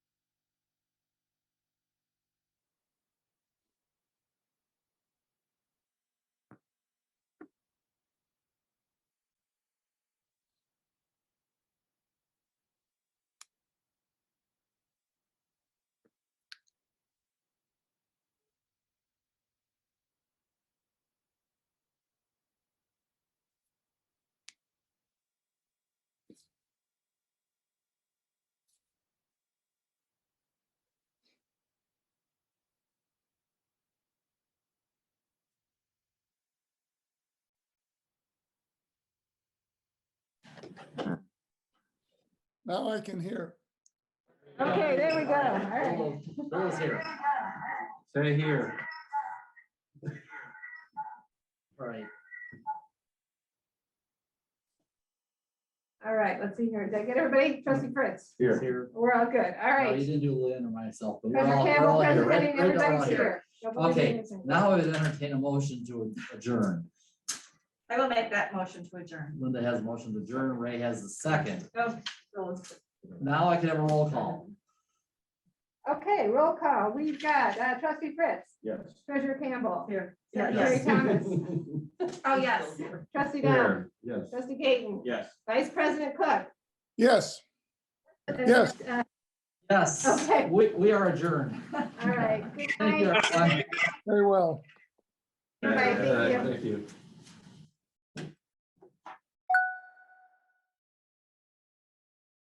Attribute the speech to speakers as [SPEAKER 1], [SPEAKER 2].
[SPEAKER 1] Now I can hear.
[SPEAKER 2] Okay, there we go. All right.
[SPEAKER 3] Bill was- Bill was here. Say here. Right.
[SPEAKER 2] All right, let's see here. Did I get everybody? Trustee Fritz?
[SPEAKER 3] Here. Here.
[SPEAKER 2] We're all good. All
[SPEAKER 3] No, You
[SPEAKER 2] right.
[SPEAKER 3] didn't do Lynn or myself, but we're
[SPEAKER 2] Treasurer
[SPEAKER 3] all, we're
[SPEAKER 2] Campbell,
[SPEAKER 3] all here.
[SPEAKER 2] President
[SPEAKER 3] Right-
[SPEAKER 2] Henning,
[SPEAKER 3] right now, all
[SPEAKER 2] everybody's
[SPEAKER 3] here.
[SPEAKER 2] here. Nobody's
[SPEAKER 3] Okay,
[SPEAKER 2] missing.
[SPEAKER 3] now I would entertain a motion to adjourn.
[SPEAKER 4] I will make that motion to adjourn.
[SPEAKER 3] Linda has a motion to adjourn, Ray has the second.
[SPEAKER 4] Go, Phillips.
[SPEAKER 3] Now I can have a roll call.
[SPEAKER 2] Okay, roll call. We've got uh, trustee Fritz,
[SPEAKER 5] Yes.
[SPEAKER 2] treasurer Campbell,
[SPEAKER 4] Here. Yeah,
[SPEAKER 2] secretary
[SPEAKER 4] yes.
[SPEAKER 2] Thomas,
[SPEAKER 4] Oh, yes.
[SPEAKER 2] trustee Down,
[SPEAKER 5] Here, yes.
[SPEAKER 2] trustee Gaten,
[SPEAKER 5] Yes.
[SPEAKER 2] vice president Cook.
[SPEAKER 1] Yes, Yes.
[SPEAKER 2] Uh,
[SPEAKER 3] Yes,
[SPEAKER 2] Okay.
[SPEAKER 3] we, we are adjourned.
[SPEAKER 2] All right. Good
[SPEAKER 3] Thank you,
[SPEAKER 2] night.
[SPEAKER 3] everyone.
[SPEAKER 1] very well.
[SPEAKER 2] Bye, thank you.
[SPEAKER 5] Uh, Thank you.